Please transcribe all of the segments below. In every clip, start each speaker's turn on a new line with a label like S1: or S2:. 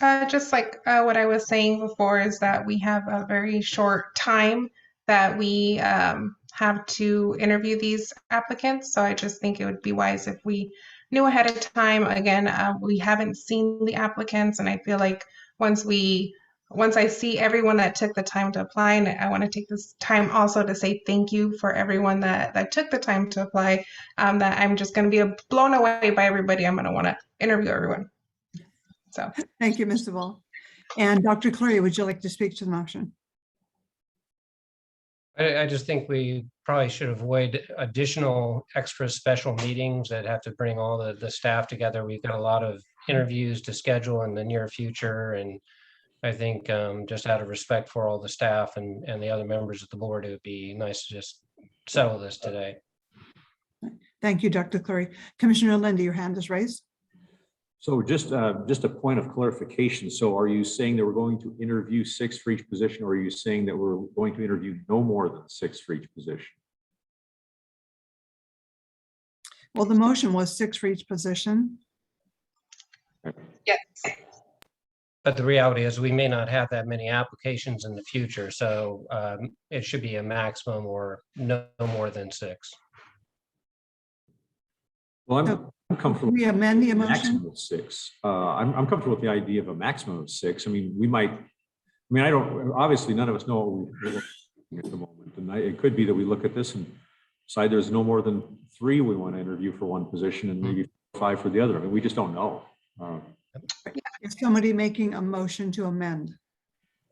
S1: Uh, just like uh, what I was saying before, is that we have a very short time that we um, have to interview these applicants. So I just think it would be wise if we knew ahead of time. Again, uh, we haven't seen the applicants, and I feel like once we once I see everyone that took the time to apply, and I want to take this time also to say thank you for everyone that that took the time to apply. Um, that I'm just going to be blown away by everybody. I'm going to want to interview everyone. So.
S2: Thank you, Mr. Wall. And Dr. Clary, would you like to speak to the motion?
S3: I, I just think we probably should avoid additional extra special meetings that have to bring all the, the staff together. We've got a lot of interviews to schedule in the near future and I think um, just out of respect for all the staff and, and the other members of the board, it would be nice to just settle this today.
S2: Thank you, Dr. Clary. Commissioner Linda, your hand is raised.
S4: So just, uh, just a point of clarification. So are you saying that we're going to interview six for each position, or are you saying that we're going to interview no more than six for each position?
S2: Well, the motion was six for each position.
S1: Yes.
S3: But the reality is we may not have that many applications in the future, so um, it should be a maximum or no no more than six.
S4: Well, I'm-
S2: So,
S4: I'm comfortable.
S2: We amend the
S4: with a
S2: motion.
S4: Maximum of six. Uh, I'm, I'm comfortable with the idea of a maximum of six. I mean, we might, I mean, I don't, obviously, none of us know what we're looking at the moment. And I- it could be that we look at this and decide there's no more than three we want to interview for one position
S2: Hmm.
S4: and maybe five for the other. I mean, we just don't know. Uh,
S2: Is somebody making a motion to amend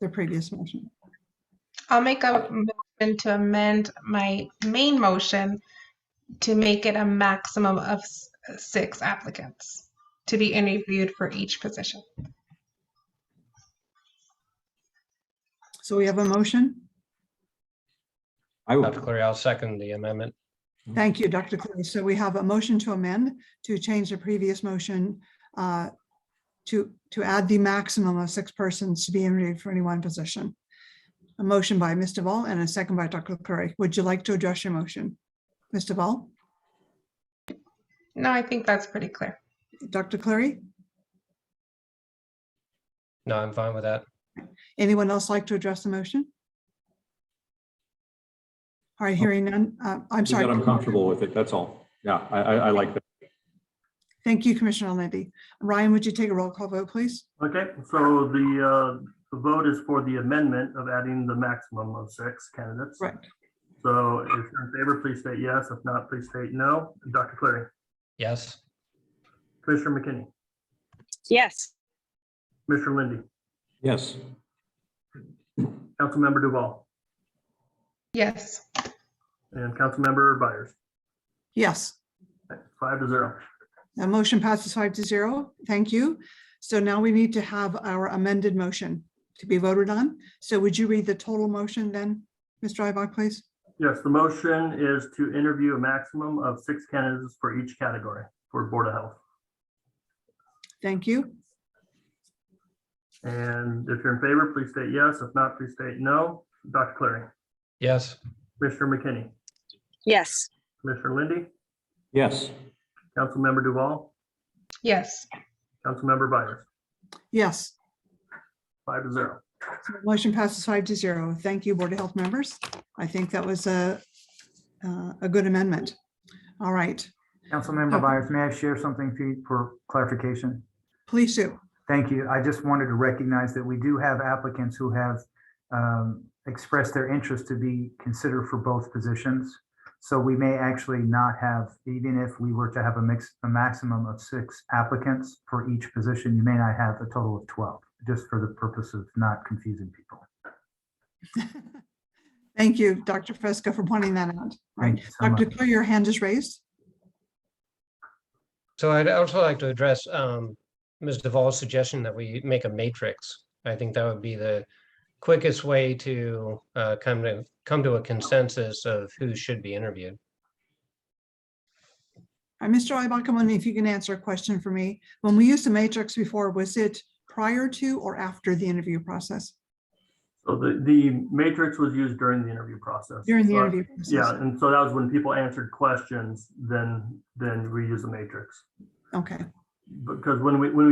S2: the previous motion?
S1: I'll make a motion to amend my main motion to make it a maximum of s- six applicants to be interviewed for each position.
S2: So we have a motion.
S4: I would.
S3: Dr. Clary, I'll second the amendment.
S2: Thank you, Dr. Clary. So we have a motion to amend to change the previous motion uh, to, to add the maximum of six persons to be interviewed for any one position. A motion by Ms. Duvall and a second by Dr. Clary. Would you like to address your motion? Ms. Duvall,
S1: No, I think that's pretty clear.
S2: Dr. Clary,
S3: No, I'm fine with that.
S2: anyone else like to address the motion? All right, hearing none. Uh, I'm
S4: That
S2: sorry.
S4: I'm comfortable with it, that's all. Yeah, I, I, I like that.
S2: Thank you, Commissioner Lindy. Ryan, would you take a roll call vote, please?
S5: Okay, so the, uh, the vote is for the amendment of adding the maximum of six candidates.
S2: Right.
S5: So if you're in favor, please state yes. If not, please state no. Dr. Clary,
S3: Yes,
S5: Commissioner McKinney,
S6: Yes,
S5: Commissioner Lindy,
S4: Yes,
S5: Councilmember Duval,
S1: Yes.
S5: and Councilmember Byers,
S2: Yes.
S5: five to zero.
S2: The motion passes five to zero. Thank you. So now we need to have our amended motion to be voted on. So would you read the total motion then, Mr. Ibach, please?
S5: Yes, the motion is to interview a maximum of six candidates for each category for Board of Health.
S2: Thank you.
S5: And if you're in favor, please state yes. If not, please state no. Dr. Clary,
S3: yes,
S5: Commissioner McKinney,
S6: yes,
S5: Commissioner Lindy,
S4: yes,
S5: Councilmember Duval,
S1: Yes.
S5: Councilmember Byers,
S2: Yes,
S5: five to zero.
S2: so the motion passes five to zero. Thank you, Board of Health members. I think that was a, uh, a good amendment. All right,
S7: Councilmember
S2: Okay.
S7: Byers, may I share something Pete, for clarification?
S2: please do.
S7: Thank you. I just wanted to recognize that we do have applicants who have um, expressed their interest to be considered for both positions. So we may actually not have, even if we were to have a mix, a maximum of six applicants for each position, you may not have a total of 12, just for the purpose of not confusing people.
S2: Thank you, Dr. Fresco, for pointing that out. Right,
S7: Thank you so
S2: Dr.
S7: much.
S2: Clear, your hand is raised.
S3: So I'd also like to address um, Ms. Duvall's suggestion that we make a matrix. I think that would be the quickest way to uh, come to, come to a consensus of who should be interviewed.
S2: Uh, Mr. Ibach, I'm wondering if you can answer a question for me. When we used the matrix before, was it prior to or after the interview process?
S5: So the, the matrix was used during the interview process.
S2: During the
S5: So I-
S2: interview? process?
S5: Yeah, and so that was when people answered questions, then, then we use the matrix.
S2: Okay.
S5: Because when we, when we